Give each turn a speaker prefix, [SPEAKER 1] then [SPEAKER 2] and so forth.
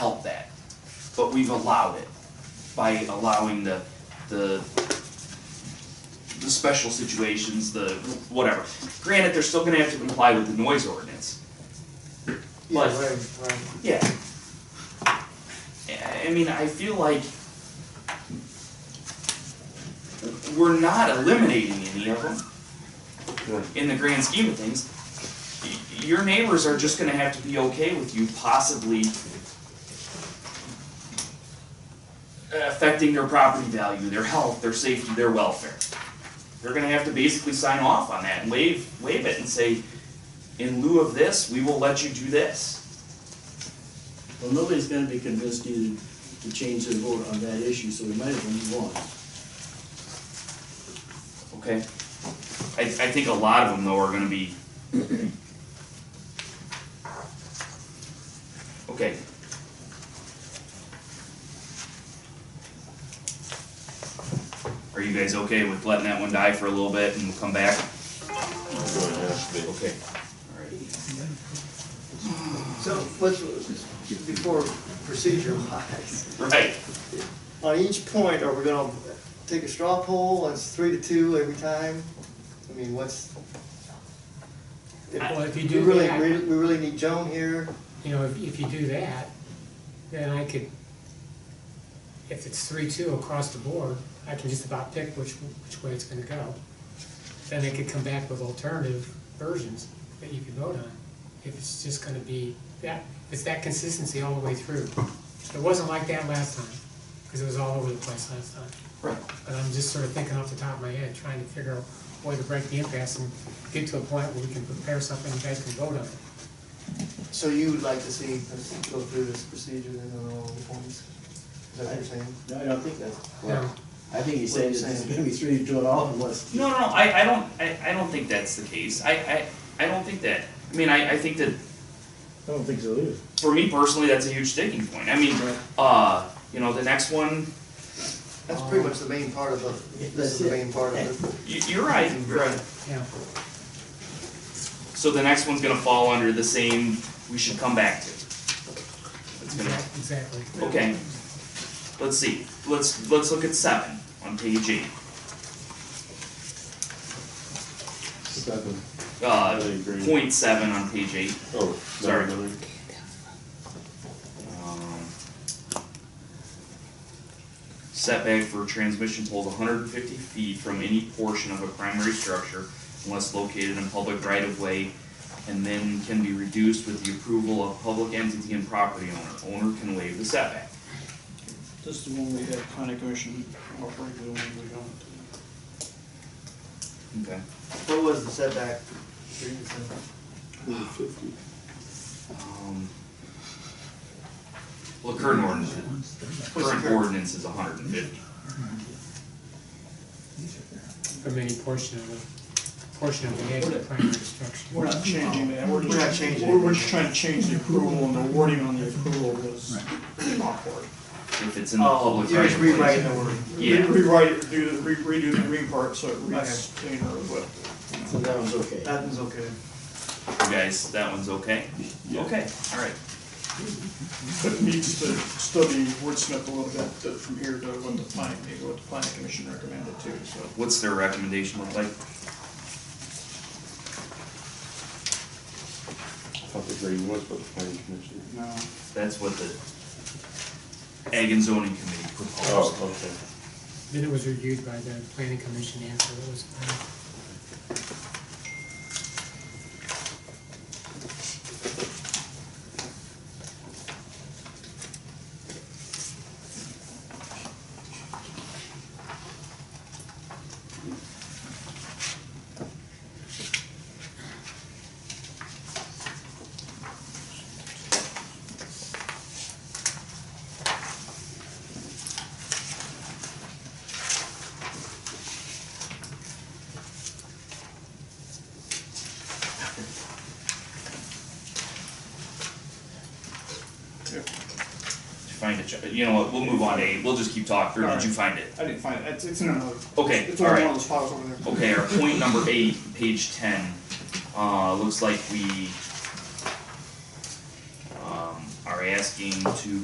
[SPEAKER 1] but we've allowed it by allowing the, the, the special situations, the whatever. Granted, they're still gonna have to comply with the noise ordinance.
[SPEAKER 2] Yeah,
[SPEAKER 1] But-
[SPEAKER 2] right, right.
[SPEAKER 1] Yeah. I mean, I feel like we're not eliminating any of them in the grand scheme of things. Y- Your neighbors are just gonna have to be okay with you possibly affecting their property value, their health, their safety, their welfare. They're gonna have to basically sign off on that and waive, waive it and say, in lieu of this, we will let you do this.
[SPEAKER 3] Well, nobody's gonna be convinced either to change their vote on that issue, so we might as well move on.
[SPEAKER 1] Okay. I, I think a lot of them though are gonna be. Okay. Are you guys okay with letting that one die for a little bit and we'll come back? Okay. Alright.
[SPEAKER 4] So let's, before procedure wise,
[SPEAKER 1] Right,
[SPEAKER 4] on each point, are we gonna take a straw poll, and it's three to two every time? I mean, what's?
[SPEAKER 2] Well, if you
[SPEAKER 4] We
[SPEAKER 2] do
[SPEAKER 4] really,
[SPEAKER 2] that-
[SPEAKER 4] we really need Joan here,
[SPEAKER 2] You know, if, if you do that, then I could, if it's three, two across the board, I can just about pick which, which way it's gonna go. Then they could come back with alternative versions that you could vote on, if it's just gonna be that, it's that consistency all the way through. It wasn't like that last time, because it was all over the place last time.
[SPEAKER 1] right.
[SPEAKER 2] But I'm just sort of thinking off the top of my head, trying to figure out a way to break the impasse and get to a point where we can prepare something you guys can vote on.
[SPEAKER 4] so you would like to see us go through this procedure then on all the points? Is that what you're saying?
[SPEAKER 3] No, I don't think that's,
[SPEAKER 2] Now,
[SPEAKER 3] well, I think he's saying
[SPEAKER 4] What are you
[SPEAKER 3] it's
[SPEAKER 4] saying?
[SPEAKER 3] gonna be three to two at all unless.
[SPEAKER 1] No, no, no, I, I don't, I, I don't think that's the case. I, I, I don't think that. I mean, I, I think that
[SPEAKER 3] I don't think so either.
[SPEAKER 1] for me personally, that's a huge sticking point. I mean, uh, you know, the next one,
[SPEAKER 4] That's pretty much the main part of the, this is the main part of it.
[SPEAKER 1] You, you're right, you're right.
[SPEAKER 2] yeah.
[SPEAKER 1] So the next one's gonna fall under the same, we should come back to. It's gonna,
[SPEAKER 2] Exactly.
[SPEAKER 1] okay. Let's see, let's, let's look at seven on page eight.
[SPEAKER 5] Seven.
[SPEAKER 1] Uh,
[SPEAKER 5] I agree.
[SPEAKER 1] point seven on page eight.
[SPEAKER 5] Oh,
[SPEAKER 1] Sorry.
[SPEAKER 5] sorry.
[SPEAKER 1] Um, Setback for transmission poles hundred and fifty feet from any portion of a primary structure unless located in public right of way and then can be reduced with the approval of public entity and property owner. Owner can waive the setback.
[SPEAKER 6] This is the one we had planning commission offering, the one we don't.
[SPEAKER 1] Okay.
[SPEAKER 4] What was the setback? Three percent.
[SPEAKER 5] Fifty.
[SPEAKER 1] Um, Well, current ordinance, current ordinance is hundred and fifty.
[SPEAKER 2] From any portion of the, portion of the edge of the primary structure.
[SPEAKER 6] We're not changing that, we're just.
[SPEAKER 4] We're not changing it.
[SPEAKER 6] We're, we're just trying to change the approval and the wording on the approval was awkward.
[SPEAKER 1] If it's in
[SPEAKER 4] Oh,
[SPEAKER 1] the public
[SPEAKER 4] You're
[SPEAKER 1] right
[SPEAKER 4] just
[SPEAKER 1] of way.
[SPEAKER 4] rewriting the word.
[SPEAKER 1] Yeah.
[SPEAKER 6] Re- Rewrite it, do the, re- redo the green part, so it reads cleaner, but.
[SPEAKER 3] So that one's okay.
[SPEAKER 4] That one's okay.
[SPEAKER 1] You guys, that one's okay? Okay, alright.
[SPEAKER 6] But needs to study wordsmith a little bit uh, from here to what the planning, maybe what the planning commission recommended too, so.
[SPEAKER 1] What's their recommendation look like?
[SPEAKER 5] Public rating was, but the planning commission.
[SPEAKER 6] No.
[SPEAKER 1] That's what the Ag and Zoning Committee proposed.
[SPEAKER 5] Oh, okay.
[SPEAKER 2] Then it was reviewed by the planning commission after it was, uh,
[SPEAKER 1] Did you find it, Jo- you know what, we'll move on to eight, we'll just keep talking, or did you find it?
[SPEAKER 6] I didn't find it, it's, it's in another.
[SPEAKER 1] Okay,
[SPEAKER 6] It's in one
[SPEAKER 1] alright.
[SPEAKER 6] of those files over there.
[SPEAKER 1] Okay, our point number eight, page ten, uh, looks like we um, are asking to